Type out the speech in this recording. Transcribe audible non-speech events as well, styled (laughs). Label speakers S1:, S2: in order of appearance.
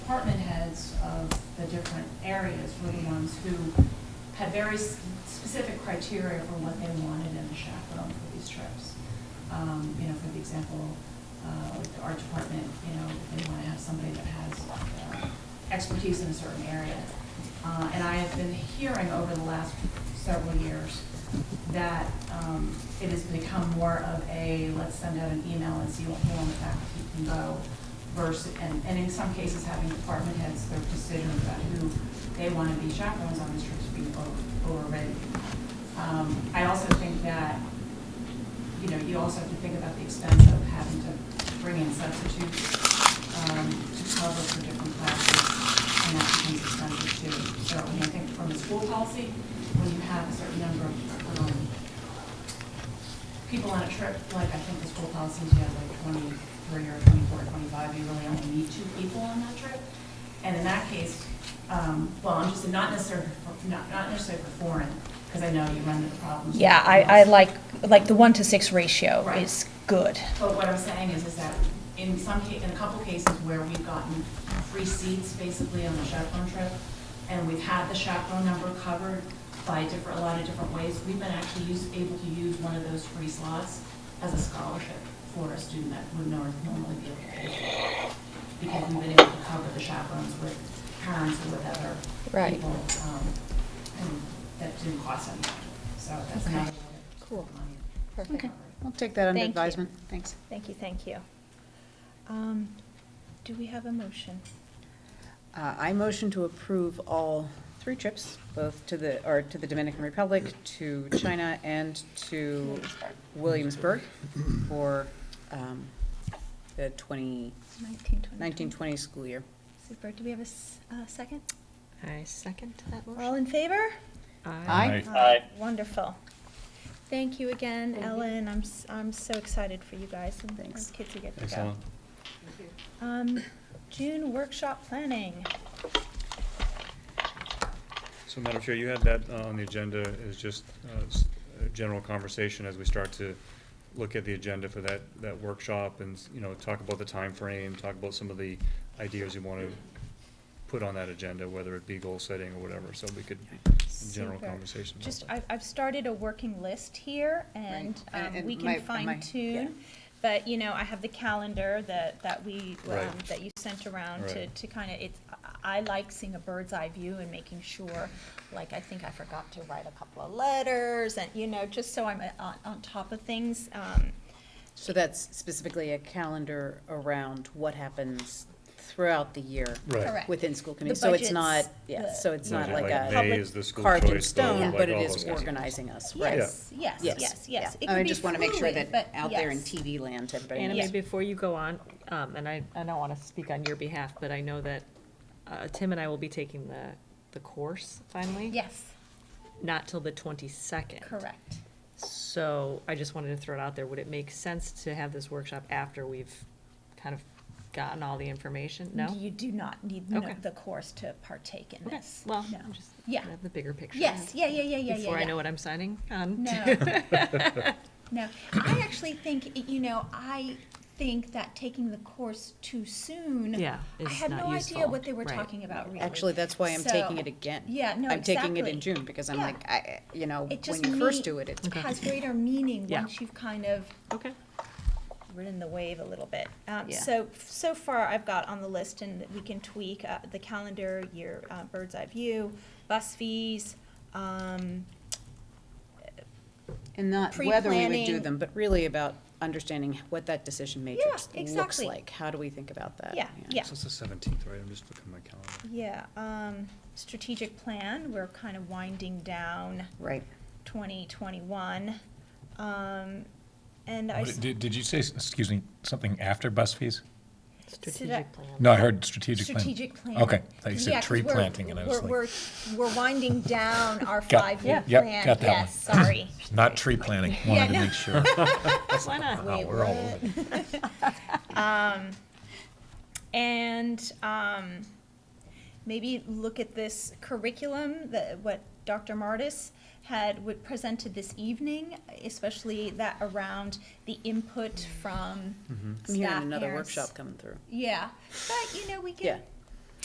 S1: department heads of the different areas were the ones who had very s- specific criteria for what they wanted in a chaperone for these trips. Um, you know, for the example, uh, like the art department, you know, they want to have somebody that has uh, expertise in a certain area. Uh, and I have been hearing over the last several years that, um, it has become more of a, let's send out an email and see what who on the faculty can go versus, and, and in some cases having department heads, their decisions about who they want to be chaperones on these trips be over- overridden. Um, I also think that you know, you also have to think about the expense of having to bring in substitutes um, to cover for different classes, and that becomes expensive too. So, I mean, I think from a school policy, when you have a certain number of um, people on a trip, like I think the school policy is you have like 23 or 24, 25, you really only need two people on that trip. And in that case, um, well, I'm just not necessarily, for- not not necessarily for foreign, because I know you run into problems. with
S2: Yeah, I, I
S1: foreigners.
S2: like, like the one to six ratio
S1: Right.
S2: is good.
S1: But what I'm saying is, is that in some ca, in a couple cases where we've gotten free seats basically on the chaperone trip, and we've had the chaperone number covered by different, a lot of different ways, we've been actually use, able to use one of those free slots as a scholarship for a student that would nor- normally be able to pay for. it. Because we've been able to cover the chaperones with parents or with other
S2: Right.
S1: people, um, and that didn't cost anything. So that's
S2: Okay.
S1: another.
S3: Cool.
S1: money.
S3: Perfect.
S2: Okay.
S3: I'll take that under
S2: Thank you.
S3: advisement. Thanks.
S2: Thank you, thank you. Um, do we have a motion?
S3: Uh, I motion to approve all three trips, both to the, or to the Dominican Republic, to China, and to Williamsburg for um, the 20,
S2: Nineteen twenty.
S3: 1920 school year.
S2: Super, do we have a s- uh, second?
S4: I second that
S2: All in favor?
S3: Aye.
S5: Aye.
S2: Wonderful. Thank you again,
S4: Thank you.
S2: Ellen, I'm, s- I'm so excited for you guys and
S3: Thanks.
S2: those kids who get to go.
S5: Thanks, Ellen.
S2: Um, June workshop planning.
S5: So Madam Chair, you had that uh, on the agenda is just uh, s- a general conversation as we start to look at the agenda for that, that workshop and, you know, talk about the time frame, talk about some of the ideas you want to put on that agenda, whether it be goal setting or whatever, so we could, general
S2: Super.
S5: conversation about
S2: Just,
S5: that.
S2: I've, I've started a working list here and,
S3: Right.
S2: um,
S3: And-
S2: we
S3: and my-
S2: can
S3: my-
S2: fine
S3: yeah.
S2: tune. But, you know, I have the calendar that, that we,
S5: Right.
S2: um, that you sent around to,
S5: Right.
S2: to kind of, it's, I I like seeing a bird's eye view and making sure, like, I think I forgot to write a couple of letters and, you know, just so I'm uh, on, on top of things. Um,
S3: So that's specifically a calendar around what happens throughout the year
S5: Right.
S2: Correct.
S3: within school committee.
S2: The
S3: So it's
S2: budgets,
S3: not, yeah,
S2: the-
S3: so it's
S5: Right,
S3: not
S5: like
S3: like
S5: May
S3: a
S5: is the school
S3: carved in
S5: choice, though,
S3: stone,
S5: like
S3: but it
S5: all
S3: is
S5: those guys.
S3: organizing us, right? Oh,
S2: Yes, yes, yes, yes. It
S3: I
S2: can
S3: mean,
S2: be
S3: just want to make sure
S2: fluid,
S3: that
S2: but
S3: out there in
S2: yes.
S3: TV land, everybody
S2: Anime
S4: Anime,
S3: knows.
S4: before you go on, um, and I, I don't want to speak on your behalf, but I know that uh, Tim and I will be taking the, the course finally.
S2: Yes,
S4: Not till the twenty-second.
S2: correct.
S4: So I just wanted to throw it out there. Would it make sense to have this workshop after we've kind of gotten all the information? No?
S2: You do not need no-
S4: Okay.
S2: the course to partake in
S4: Okay,
S2: this.
S4: well,
S2: No.
S4: I'm just,
S2: Yeah.
S4: have the bigger picture.
S2: Yes, yeah, yeah, yeah, yeah, yeah.
S4: Before I
S2: yeah.
S4: know what I'm signing on.
S2: No. (laughs) No, I actually think, you know, I think that taking the course too soon.
S4: (laughs) Yeah,
S2: I
S4: it's
S2: had
S4: not
S2: no idea
S4: useful.
S2: what they were
S4: Right.
S2: talking about really.
S3: Actually, that's why I'm
S2: So-
S3: taking it again.
S2: Yeah, no,
S3: I'm taking it in
S2: exactly.
S3: June because I'm
S2: Yeah.
S3: like, I, you know,
S2: It
S3: when
S2: just
S3: you first
S2: meet-
S3: do it, it's,
S2: It Has greater meaning
S4: Yeah.
S2: once you've kind of
S4: Okay.
S2: ridden the wave a little bit. Um,
S4: Yeah.
S2: So, so far I've got on the list and we can tweak uh, the calendar, your uh, bird's eye view, bus fees, um,
S3: and not whether we would do
S2: Pre-planning.
S3: them, but really about understanding what that decision matrix looks
S2: exactly.
S3: like. How do we think about that?
S2: Yeah, yeah.
S5: So it's the seventeenth, right? I'm just looking at my calendar.
S2: yeah, um, strategic plan, we're kind of winding down.
S3: Right.
S2: 2021. Um, And I,
S6: What-
S2: s-
S6: Did, did you say, s- excuse me, something after bus fees?
S4: Strategic plan.
S6: No, I heard strategic plan.
S2: strategic plan.
S6: Okay, I thought you
S2: 'Cause,
S6: said
S2: yeah, 'cause
S6: tree
S2: we're-
S6: planting, and I was
S2: we're-
S6: like,
S2: We're, we're winding
S6: (laughs)
S2: down our
S6: Got-
S2: five-year
S6: yep,
S2: plan.
S6: got that
S2: Yes, sorry.
S6: not tree planting,
S2: Yeah,
S6: wanted to
S2: no. (laughs)
S6: make sure.
S4: Why not?
S6: Wow, we're all over it.
S2: And um, maybe look at this curriculum that what Dr. Martis had would presented this evening, especially that around the input from
S3: I'm hearing
S2: staff,
S3: another
S2: parents.
S3: workshop coming through.
S2: Yeah, but you know, we
S3: Yeah.
S2: can,